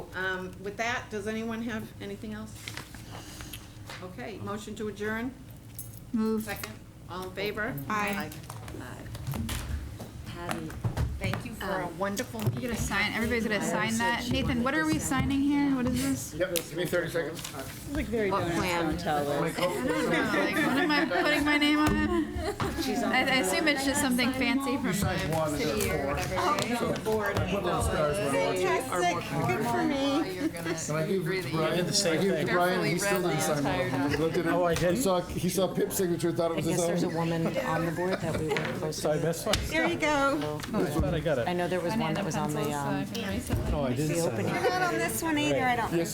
um, with that, does anyone have anything else? Okay, motion to adjourn? Move. Second. All in favor? Aye. Aye. Patty, Thank you for a Um, wonderful You meeting. gotta sign, everybody's I gonna sign said that. she Nathan, wanted what to are we sign signing here? What is this? Yep, give me thirty seconds. what plan? My coat. I don't know, like, what am I putting my name on it? I, I assume it's just something fancy from You sign one, the and there city are or four. whatever. Put little stars around it. Good for me. You're And I gonna gave agree that Brian, you- I gave Brian, he still didn't sign one. He looked at it. Oh, I He didn't? saw, he saw Pip's signature, thought it I was his guess there's a own. woman on the board that we were close So I to. missed one? There you go. I thought I got it. I know there was I need one that the was on the, pencils, so I um, can erase it. No, I didn't the sign opening. it. Not on this one either, I don't Yes,